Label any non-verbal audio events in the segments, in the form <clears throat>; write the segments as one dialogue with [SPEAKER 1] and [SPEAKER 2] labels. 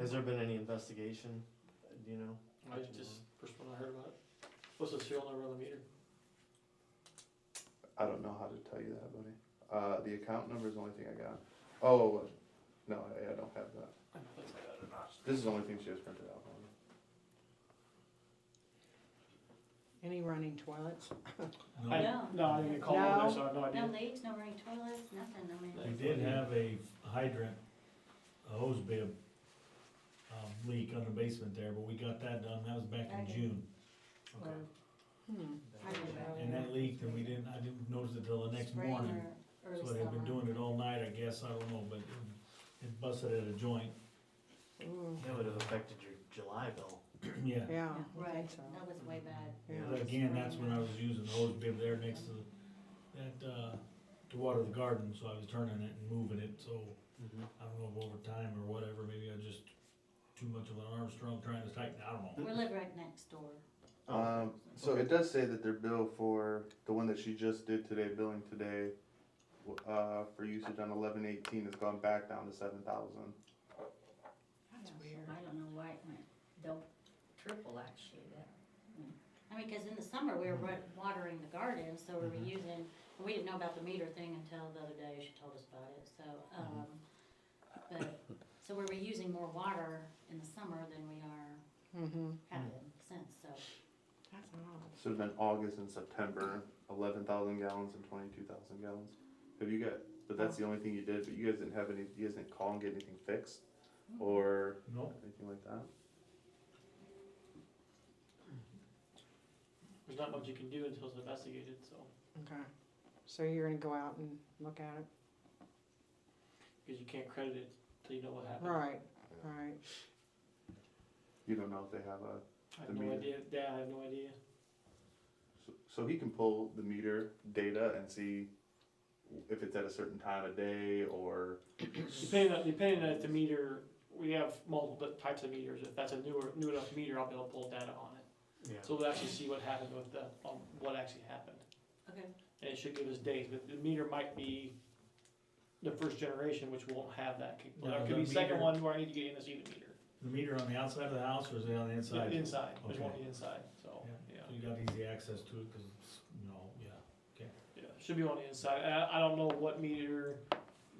[SPEAKER 1] Has there been any investigation, Uh, do you know?
[SPEAKER 2] I just, first one I heard about it. What's the serial number on the meter?
[SPEAKER 3] I don't know how to tell you that, buddy. Uh, the account number is the only thing I got. Oh, no, I, I don't have that.
[SPEAKER 2] I don't think I got it.
[SPEAKER 3] This is the only thing she has printed out. for me.
[SPEAKER 4] Any running toilets?
[SPEAKER 2] I-
[SPEAKER 5] No.
[SPEAKER 2] No, I didn't call on
[SPEAKER 4] No.
[SPEAKER 2] this, I have no
[SPEAKER 5] No
[SPEAKER 2] idea.
[SPEAKER 5] leaks, no running toilets, nothing, I mean.
[SPEAKER 2] No.
[SPEAKER 6] We did have a hydrant, a hose bib, um, leak on the basement there, but we got that done, that was back
[SPEAKER 5] Back in-
[SPEAKER 6] in June.
[SPEAKER 4] Or- Hmm,
[SPEAKER 5] I don't know.
[SPEAKER 6] And that leaked, and we didn't, I didn't notice it till the next
[SPEAKER 5] Spring
[SPEAKER 6] morning,
[SPEAKER 5] or early
[SPEAKER 6] so they've been
[SPEAKER 5] summer.
[SPEAKER 6] doing it all night, I guess, I don't know, but it- it busted at a joint, <clears throat>
[SPEAKER 4] ooh,
[SPEAKER 1] That would have affected your July bill.
[SPEAKER 6] yeah.
[SPEAKER 4] yeah,
[SPEAKER 5] Yeah,
[SPEAKER 4] Oh, I think
[SPEAKER 5] Right,
[SPEAKER 4] so.
[SPEAKER 5] that was way bad.
[SPEAKER 4] Yeah.
[SPEAKER 6] But again, that's when I was using the hose bib there next to the, that, uh, to water the garden, so I was turning it and moving it, so
[SPEAKER 1] Mm-hmm.
[SPEAKER 6] I don't know if over time or whatever, maybe I just too much of an Armstrong trying to tighten, I don't know.
[SPEAKER 5] We live right next door.
[SPEAKER 4] Uh,
[SPEAKER 3] Um, so it does say that their bill for the one that she just did today, billing today, w- uh, for usage on eleven eighteen has gone back down to seven thousand.
[SPEAKER 4] That's
[SPEAKER 5] Yeah,
[SPEAKER 4] weird.
[SPEAKER 5] I don't know why it went, double, triple actually, that. mm. I mean, cause in the summer, we were wa-
[SPEAKER 4] Mm-hmm.
[SPEAKER 5] watering the garden, so we were
[SPEAKER 1] Mhm.
[SPEAKER 5] using, we didn't know about the meter thing until the other day, she told us about it, so,
[SPEAKER 4] Mm-hmm.
[SPEAKER 5] um, but, so we were using more water in the summer than we are
[SPEAKER 4] Mm-hmm,
[SPEAKER 5] having since, so.
[SPEAKER 4] that's odd.
[SPEAKER 3] So then August and September, eleven thousand gallons and twenty-two thousand gallons. Have you got, but that's the only thing you did, but you guys didn't have any, you guys didn't call and get anything fixed or
[SPEAKER 6] No,
[SPEAKER 3] anything like that?
[SPEAKER 2] There's not much you can do until it's investigated, so
[SPEAKER 4] Okay, so you're gonna go out and look at it?
[SPEAKER 2] because you can't credit it till you know what happened.
[SPEAKER 4] Right, right.
[SPEAKER 3] You don't know if they have a,
[SPEAKER 2] I
[SPEAKER 3] The
[SPEAKER 2] have no
[SPEAKER 3] meter.
[SPEAKER 2] idea. Yeah, I have no idea.
[SPEAKER 3] so, so he can pull the meter data and see if it's at a certain time of day or,
[SPEAKER 2] Depending on depending on if the meter, we have multiple types of meters. If that's a newer new enough meter, I'll be able to pull data on it.
[SPEAKER 1] Yeah.
[SPEAKER 2] So we'll actually see what happened with the on what actually happened.
[SPEAKER 5] Okay.
[SPEAKER 2] and it should give us days, but the meter might be the first generation, which won't have that. kick-
[SPEAKER 6] No,
[SPEAKER 2] Or it could
[SPEAKER 6] the
[SPEAKER 2] be second
[SPEAKER 6] meter-
[SPEAKER 2] one where I need to get in this even meter.
[SPEAKER 6] the meter on the outside of the house or is it on the
[SPEAKER 2] The
[SPEAKER 6] inside?
[SPEAKER 2] Inside, there's one
[SPEAKER 6] Okay.
[SPEAKER 2] inside, so, yeah,
[SPEAKER 6] So you got easy access to it, cause it's, you know, yeah.
[SPEAKER 2] yeah, should be on the inside. And I, I don't know what meter,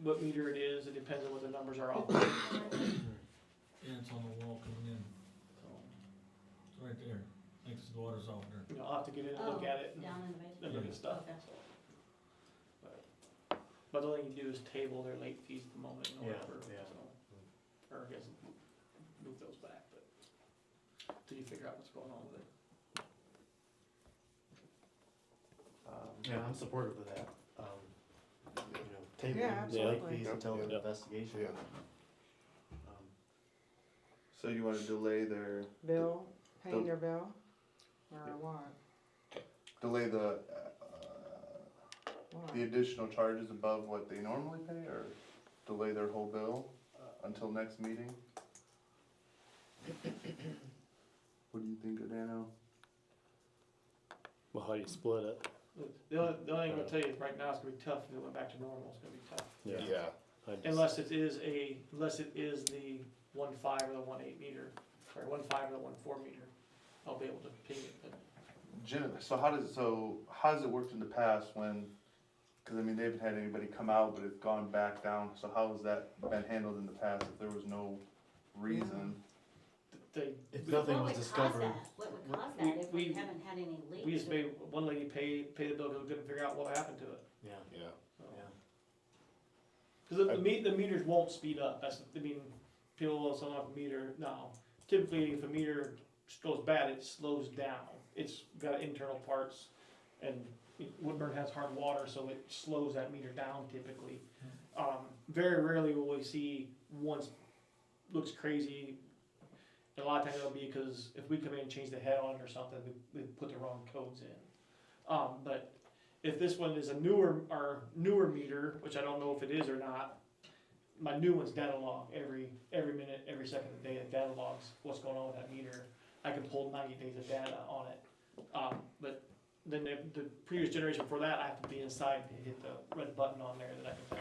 [SPEAKER 2] what meter it is, it depends on what the numbers are off.
[SPEAKER 6] Yeah, it's on the wall coming in,
[SPEAKER 2] You
[SPEAKER 6] it's right there, next to the water softener.
[SPEAKER 2] know, I'll have to get in and look at it
[SPEAKER 5] Oh,
[SPEAKER 2] and-
[SPEAKER 5] Down in the basement.
[SPEAKER 2] and look at stuff.
[SPEAKER 5] Okay.
[SPEAKER 2] so. But- But the only thing you do is table their late fees at the moment or
[SPEAKER 1] Yeah,
[SPEAKER 2] whatever,
[SPEAKER 1] yeah.
[SPEAKER 2] so. Or I guess move those back, but till you figure out what's going on with it.
[SPEAKER 3] um,
[SPEAKER 1] Yeah, I'm supportive of that. Um, you know,
[SPEAKER 4] Yeah,
[SPEAKER 1] table the late
[SPEAKER 4] absolutely.
[SPEAKER 1] fees until the
[SPEAKER 7] Yeah.
[SPEAKER 1] investigation.
[SPEAKER 7] Yeah.
[SPEAKER 1] Um,
[SPEAKER 3] So you wanna delay their,
[SPEAKER 4] Bill, paying
[SPEAKER 3] the-
[SPEAKER 4] their bill? Or
[SPEAKER 3] Yeah.
[SPEAKER 4] what?
[SPEAKER 3] delay the, uh,
[SPEAKER 4] What?
[SPEAKER 3] the additional charges above what they normally pay or delay their whole bill uh, until next meeting? What do you think, Adano?
[SPEAKER 7] Well, how do you split it?
[SPEAKER 2] The only, the only thing I'll tell you is right now it's gonna be tough, if it went back to normal, it's gonna be tough.
[SPEAKER 1] Yeah.
[SPEAKER 7] I just-
[SPEAKER 2] Unless it is a, unless it is the one five or the one eight meter, or one five or the one four meter, I'll be able to ping it, but
[SPEAKER 3] Jen, so how does, so how has it worked in the past when, cause I mean, they haven't had anybody come out, but it's gone back down, so how has that been handled in the past if there was no reason?
[SPEAKER 2] th- they,
[SPEAKER 1] If
[SPEAKER 2] We-
[SPEAKER 1] nothing
[SPEAKER 5] What
[SPEAKER 1] was
[SPEAKER 5] would cause
[SPEAKER 1] discovered,
[SPEAKER 5] that? What would cause
[SPEAKER 2] We-
[SPEAKER 5] that if we
[SPEAKER 2] we-
[SPEAKER 5] haven't had any leaks?
[SPEAKER 2] we just made one lady pay, pay the bill, 'cause we couldn't figure out what happened to it.
[SPEAKER 1] yeah,
[SPEAKER 7] Yeah.
[SPEAKER 2] so.
[SPEAKER 1] yeah.
[SPEAKER 2] Cause the, the me- the meters won't speed up, that's, I mean, people will sell off a meter, no. Typically, if a meter goes bad, it slows down, it's got internal parts, and Woodburn has hard water, so it slows that meter down typically. Um, very rarely will we see once, looks crazy, and a lot of times it'll be because if we come in and change the head on it or something, we, we put the wrong codes in. Um, but if this one is a newer, or newer meter, which I don't know if it is or not, my new one's data log every, every minute, every second of the day, it data logs what's going on with that meter. I can pull ninety days of data on it. Um, but then the, the previous generation for that, I have to be inside to hit the red button on there that I can